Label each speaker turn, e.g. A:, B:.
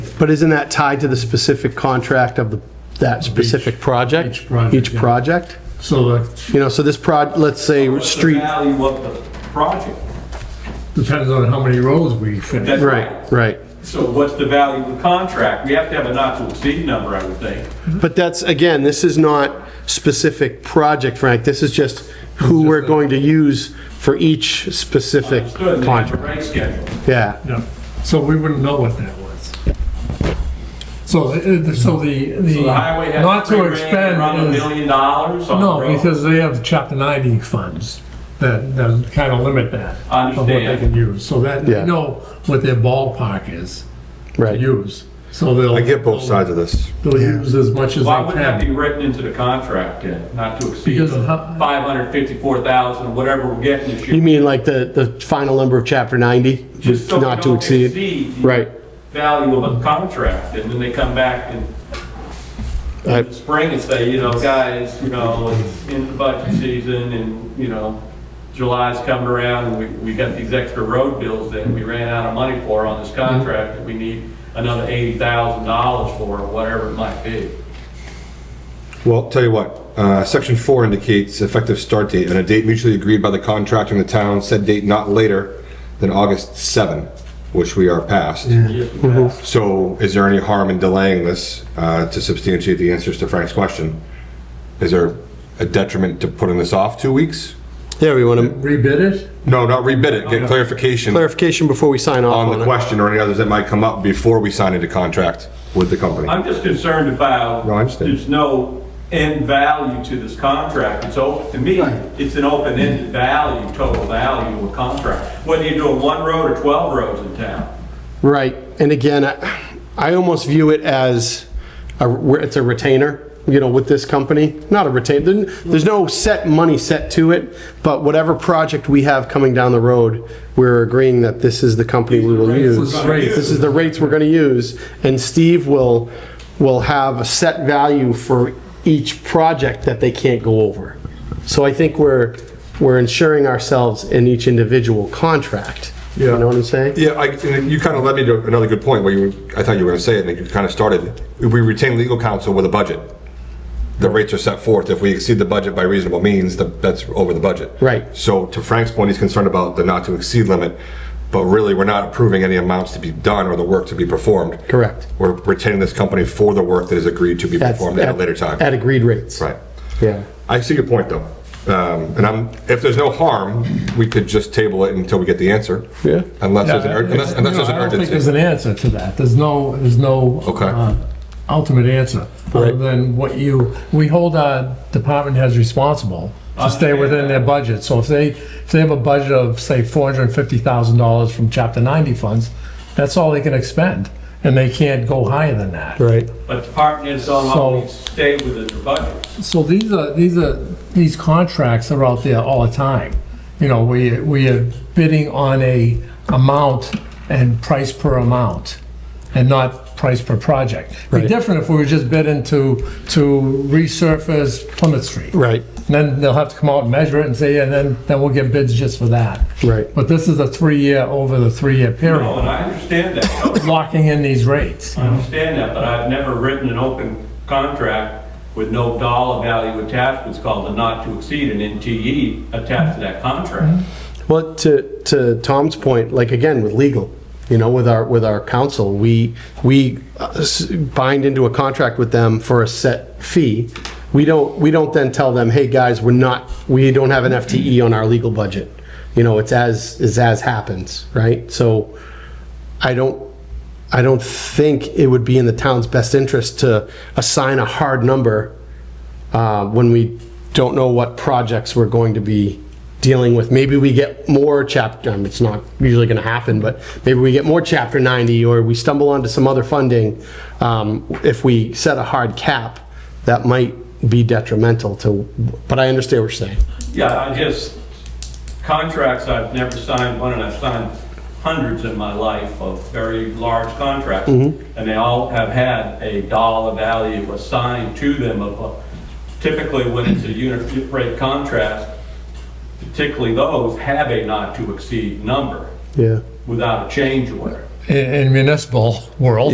A: But isn't that tied to the specific contract of the, that specific project?
B: each project,
A: Each
B: yeah.
A: project?
B: So that
A: You know, so this prod, let's say,
C: What's the
A: street,
C: value of the project?
B: depends on how many roads we finish.
C: That's
A: right, right.
C: So what's the value of the contract? We have to have a not to exceed number, I would think.
A: But that's, again, this is not specific project, Frank, this is just who we're going to use for each specific
C: Good, and have a
A: contract.
C: rate schedule.
A: Yeah,
B: Yeah. So we wouldn't know what that was. So, the- so the, the,
C: So the highway has
B: not
C: three
B: to
C: grand
B: expend
C: around a
B: is,
C: million dollars on the
B: no,
C: road.
B: because they have chapter ninety funds that, that kind of limit that.
C: I
B: Of what they
C: understand.
B: can use, so that,
A: Yeah.
B: they know what their ballpark is to
A: right.
B: use, so they'll.
D: I get both sides of this.
B: They'll use as much as they
C: Why wouldn't that be
B: can.
C: written into the contract then, not to exceed
B: Because of how-
C: 554,000, whatever we're getting this
A: You
C: year?
A: mean like the, the final number of chapter 90,
C: Just so we
A: not to
C: don't
A: exceed?
C: the
A: Right.
C: Value of a contract, and then they come back in
A: I-
C: in the spring and say, you know, guys, you know, it's in the budget season and, you know, July's coming around and we, we got these extra road bills that we ran out of money for on
D: Mm-hmm.
C: this contract that we need another eighty thousand dollars for, or whatever it might be.
D: Well, tell you what, uh, section four indicates effective start date and a date mutually agreed by the contractor and the town, said date not later than August 7, which we are past.
C: Yes, we have.
D: Mm-hmm. So is there any harm in delaying this uh, to substantiate the answers to Frank's question? Is there a detriment to putting this off two weeks?
A: Yeah, we want to
B: Rebid it?
D: No, not rebid it, get clarification
A: clarification before we sign off
D: on the
A: on it.
D: question or any others that might come up before we sign into contract with the company.
C: I'm just concerned about.
D: No, I understand.
C: There's no end value to this contract. It's open, to me, it's an open-ended value, total value of a contract. Whether you're doing one road or 12 roads in town.
A: Right, and again, I I almost view it as, a- where it's a retainer, you know, with this company, not a retainer, there's no set money set to it, but whatever project we have coming down the road, we're agreeing that this is the company we will
B: These are the rates
A: use.
B: we're gonna use.
A: This is the rates we're gonna use, and Steve will, will have a set value for each project that they can't go over. So I think we're, we're insuring ourselves in each individual contract. You
D: Yeah.
A: know what I'm saying?
D: Yeah, I, and you kind of led me to another good point where you, I thought you were going to say it, and you kind of started. We retain legal counsel with a budget. The rates are set forth. If we exceed the budget by reasonable means, the, that's over the budget.
A: Right.
D: So to Frank's point, he's concerned about the not to exceed limit, but really, we're not approving any amounts to be done or the work to be performed.
A: Correct.
D: We're retaining this company for the work that is agreed to be
A: That's-
D: performed at a later time.
A: At agreed rates.
D: Right.
A: Yeah.
D: I see your point, though. Um, and I'm, if there's no harm, we could just table it until we get the answer.
A: Yeah.
D: Unless there's an,
B: Yeah,
D: ur- unless,
B: I-
D: unless
B: you
D: there's
B: know,
D: an
B: I don't think
D: urgency.
B: there's an answer to that. There's no, there's no.
D: Okay.
B: uh, Ultimate answer, other
A: Right.
B: than what you, we hold our department heads responsible to stay within their budget. So if they, if they have a budget of, say, four hundred and fifty thousand dollars from chapter ninety funds, that's all they can expend, and they can't go higher than that.
A: Right.
C: But the partners don't
B: So-
C: always stay within the budget.
B: So these are, these are, these contracts are out there all the time. You know, we, we are bidding on a amount and price per amount and not price per project. Be
A: Right.
B: different if we were just bidding to, to resurface Plymouth Street.
A: Right.
B: Then they'll have to come out and measure it and say, and then, then we'll get bids just for that.
A: Right.
B: But this is a three-year, over the three-year
C: No, and
B: period,
C: I understand that. totally.
B: locking in these rates.
C: I understand that, but I've never written an open contract with no dollar value attached. It's called a not to exceed, an NTE attached to that contract.
A: Well, to, to Tom's point, like again, with legal, you know, with our, with our counsel, we, we uh, s- bind into a contract with them for a set fee. We don't, we don't then tell them, hey, guys, we're not, we don't have an FTE on our legal budget. You know, it's as, is as happens, right? So I don't, I don't think it would be in the town's best interest to assign a hard number uh, when we don't know what projects we're going to be dealing with. Maybe we get more chapter, um, it's not usually going to happen, but maybe we get more chapter 90 or we stumble onto some other funding. Um, If we set a hard cap, that might be detrimental to, but I understand what you're saying.
C: Yeah, I just, contracts, I've never signed one, and I've signed hundreds in my life of very large contracts. And they all have had a dollar value assigned to them of, uh, typically when it's a unit rate contract, particularly those have a not to exceed number
A: Yeah.
C: without a change order.
B: In, in municipal world,